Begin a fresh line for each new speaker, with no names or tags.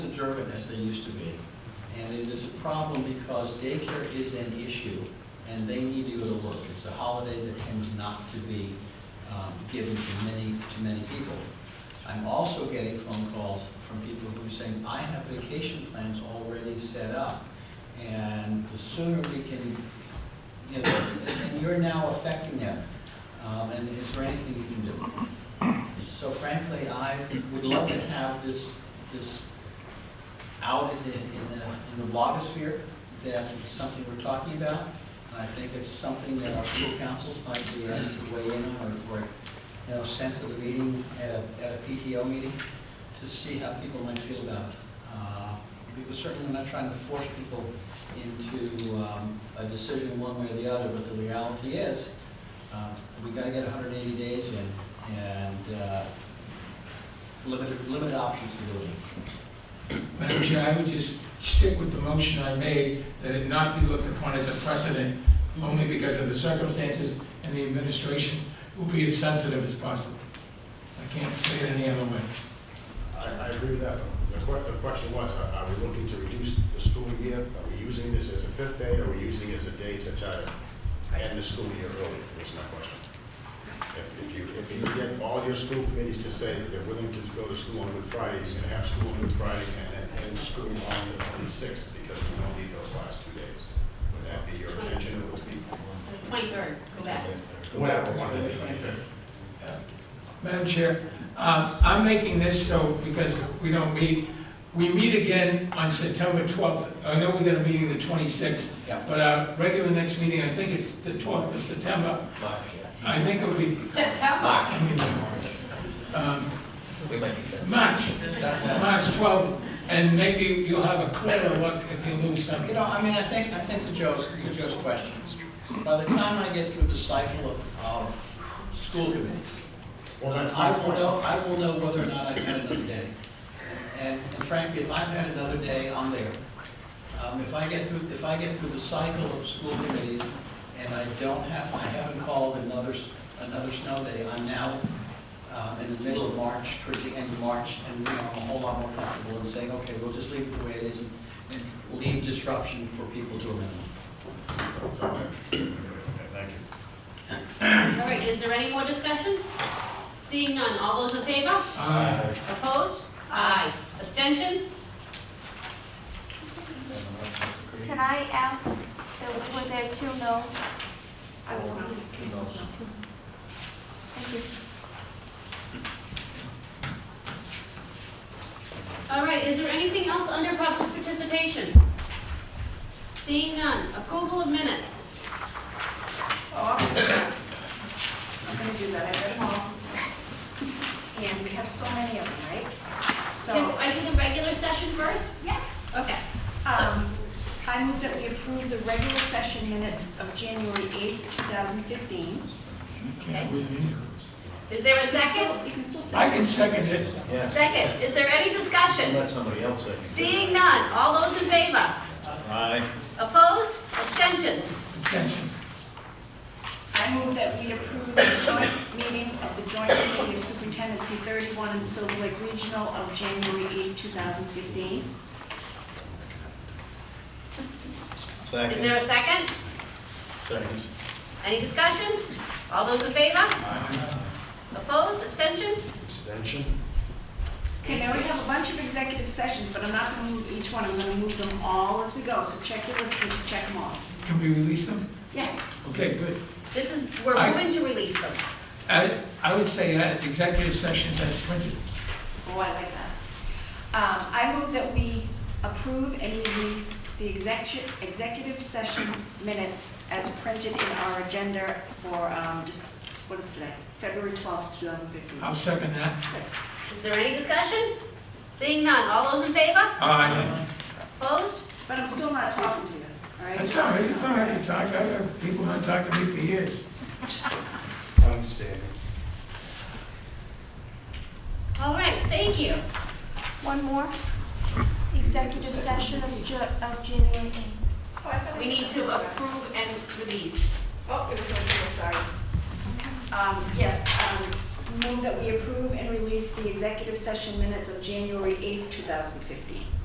observant as they used to be. And it is a problem because daycare is an issue, and they need to go to work. It's a holiday that tends not to be um, given to many, to many people. I'm also getting phone calls from people who are saying, I have vacation plans already set up, and the sooner we can, you know, and you're now affecting them, Um, and is there anything you can do? So frankly, I would love to have this, this out in the, in the, in the blogosphere, that it's something we're talking about, and I think it's something that our school councils might be asked to weigh in on, or, or, you know, sense of the meeting at a, at a PTO meeting, to see how people might feel about it. Uh, Because certainly we're not trying to force people into, um, a decision one way or the other, but the reality is, uh, we gotta get hundred and eighty days in, and, uh, limited, limited options to do it.
Madam Chair, I would just stick with the motion I made, that it not be looked upon as a precedent, only because of the circumstances, and the administration will be as sensitive as possible. I can't say it any other way.
I, I agree with that. The que, the question was, are are we looking to reduce the school year? Are we using this as a fifth day, or are we using it as a day to try to end the school year early, is my question. If- If you, if you get all your school committees to say that they're willing to go to school on Good Fridays, and have school on Good Friday, and then end school on the twenty-sixth, because we don't need those last two days, would that be your intention, or would it be?
The Twenty-third, go back.
Whatever.
Madam Chair, um, I'm making this so, because we don't meet, we meet again on September 12th. I know we got a meeting the 26th,
Yeah.
but our regular next meeting, I think it's the 12th of September. I think it'll be,
September.
I mean, um,
We might be there.
March, March 12th, and maybe you'll have a clearer look if you lose
You
something.
know, I mean, I think, I think to Joe's, to Joe's question, by the time I get through the cycle of, of school committees,
Well, that's my
I will
point.
know, I will know whether or not I've had another day. And and frankly, if I've had another day, I'm there. Um, if I get through, if I get through the cycle of school committees and I don't have, I haven't called another, s- another snow day, I'm now, um, in the middle of March, towards the end of March, and, you know, I'm a whole lot more comfortable in saying, okay, we'll just leave it the way it is and- and leave disruption for people to amend.
So, okay, Thank you.
All right, is there any more discussion? Seeing none, all those in favor?
Uh,
Opposed? Aye. Abstentions?
Can I ask, uh, were there two no? I was not. Thank you.
All right, is there anything else under public participation? Seeing none, approval of minutes.
Oh, I'm gonna do that. I'm gonna do that, I read them all. And we have so many of them, right?
Can
So,
I do the regular session first?
yeah,
Okay.
um, I move that we approve the regular session minutes of January 8th, 2015.
Is there a
You can
second?
still- You can still
I
say.
can second it.
Second, is there any discussion?
Let somebody else say.
Seeing none, all those in favor?
Aye.
Opposed? Abstentions?
Abstention.
I move that we approve the joint meeting of the Joint Committee of Superintendency 31 and Silver Lake Regional of January 8th, 2015.
Is
Second.
there a second?
Second.
Any discussion? All those in favor? Opposed, abstentions?
Abstention?
Okay, now we have a bunch of executive sessions, but I'm not gonna move each one, I'm gonna move them all as we go, so check your list, and check them all.
Can we release them?
Yes.
Okay, good.
This is, we're
Aye.
moving to release them.
I I would say that executive sessions as printed.
Oh, I like that. Um, I move that we approve and release the execu- executive session minutes as printed in our agenda for, um, dis- what is today? February 12th, 2015.
I'll second that.
Is there any discussion? Seeing none, all those in favor?
Aye.
Opposed?
But I'm still not talking to you, all right?
That's all right, you don't have to talk, I have people not talking to me for years.
Understanding.
All right, thank you.
One more. Executive session of Ju, of January eighth.
We need to approve and release.
Oh, it was over here, sorry. Um, Yes, um, move that we approve and release the executive session minutes of January 8th, 2015.